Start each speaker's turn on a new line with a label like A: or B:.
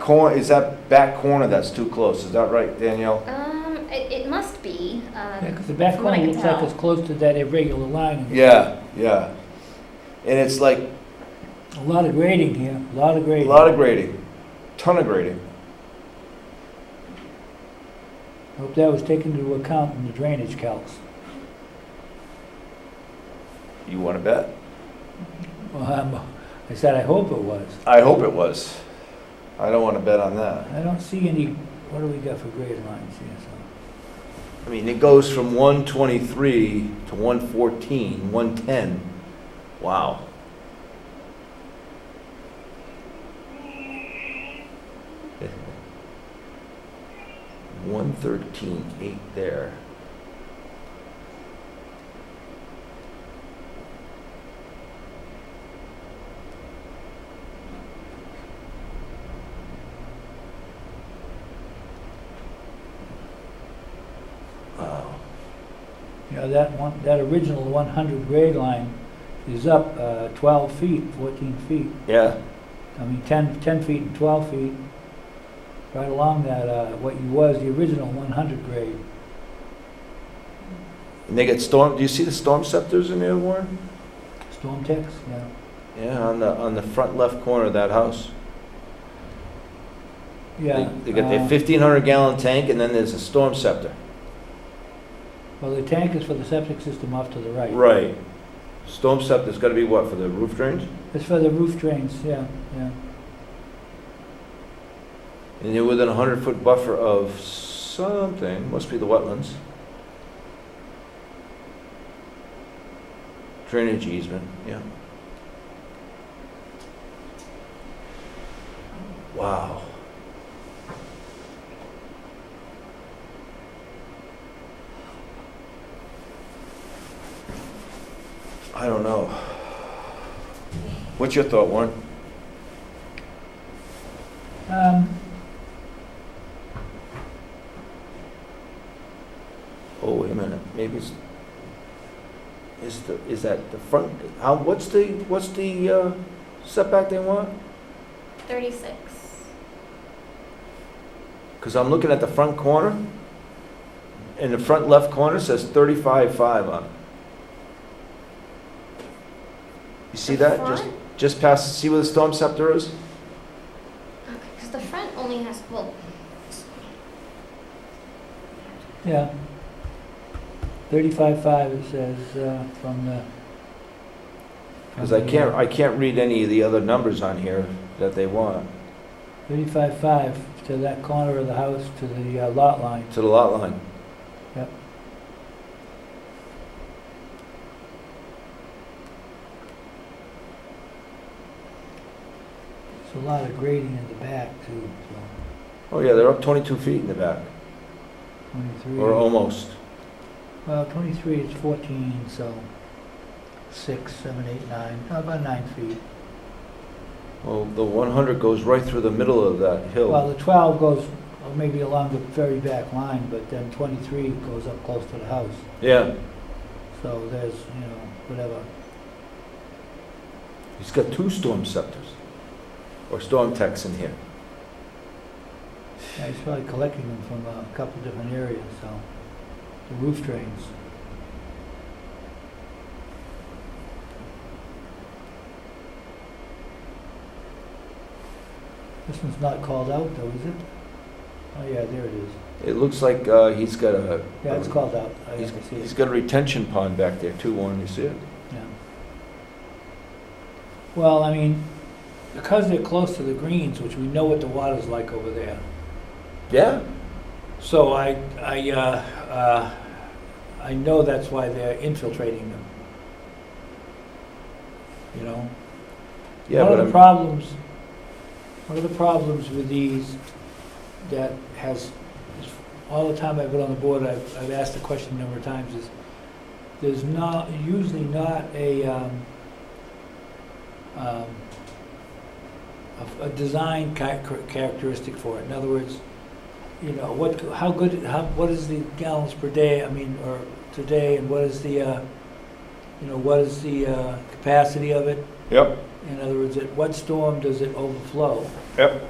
A: corner, is that back corner that's too close? Is that right, Danielle?
B: Um, it, it must be, um.
C: Yeah, because the back
B: from what I can
C: corner looks like
B: tell.
C: it's close to that irregular line.
A: Yeah, yeah. And it's like
C: A lot of grading here, a lot of
A: a
C: grading.
A: lot of grading, ton of grading.
C: Hope that was taken into account in the drainage calcs.
A: You want to bet?
C: Well, I'm- I said, I hope it was.
A: I hope it was. I don't want to bet on that.
C: I don't see any, what do we got for grade lines here, so?
A: I mean, it goes from 123 to 114, 110. Wow. One thirteen eight there. Wow.
C: You know, that one, that original one hundred grade line is up, uh, twelve feet, fourteen feet.
A: Yeah.
C: I mean, 10, 10 feet and 12 feet, right along that, uh, what you was, the original 100 grade.
A: And they get storm. Do you see the storm scepters in there, Warren?
C: Storm text, yeah.
A: Yeah, on the on the front left corner of that house.
C: Yeah.
A: They, they got their
C: uh,
A: 1,500 gallon tank, and then there's a storm scepter.
C: Well, the tank is for the septic system off to the right.
A: Right. Storm scepter's got to be what for the roof drains?
C: It's for the roof drains, yeah, yeah.
A: And you're within a 100 foot buffer of something. Must be the wetlands. Drainage easement. Yeah. Wow. I don't know. What's your thought, Warren?
C: Um,
A: Oh, wait a minute, maybe it's, is the, is that the front, how, what's the, what's the uh, setback they want?
B: 36.
A: Because I'm looking at the front corner, and the front left corner says thirty-five-five on it. You see that, just, just past, see where the storm scepter is?
B: Because the front only has, well,
C: yeah. 35.5, it says, uh, from the. uh,
A: Because I can't, I can't read any of the other numbers on here that they want,
C: 35.5 to that corner of the house, to the uh, lot line.
A: to the lot line.
C: Yep. It's a lot of grading in the back too, so
A: Oh, yeah, they're up twenty-two feet in the back,
C: 23.
A: or um, almost.
C: Well, 23 is 14, so 6, 7, 8, 9, about 9 feet.
A: Well, the 100 goes right through the middle of that
C: Well,
A: hill.
C: the 12 goes uh, maybe along the very back line, but then 23 goes up close to the house.
A: Yeah,
C: So there's, you know, whatever,
A: he's got two storm scepters, or storm techs in here.
C: Yeah, he's probably collecting them from a couple of different areas, so, the roof drains. This one's not called out though, is it? Oh, yeah, there it is.
A: It looks like uh, he's got a,
C: Yeah, it's called out. I
A: he's
C: can see
A: he's
C: it.
A: got a retention pond back there too, Warren, you see it?
C: Yeah. Well, I mean, because they're close to the greens, which we know what the water's like over there,
A: Yeah,
C: So I, I, uh, uh, I know that's why they're infiltrating them. You know?
A: yeah, but
C: One of the
A: I'm,
C: problems, one of the problems with these that has, all the time I've been on the board, I've, I've asked the question a number of times is, there's not, usually not a, um, um, a, a design cha- char- characteristic for it. In other words, you know, what, how good, how, what is the gallons per day, I mean, or today, and what is the, uh, you know, what is the, uh, capacity of it?
A: yep,
C: In other words, at what storm does it overflow?
A: yep,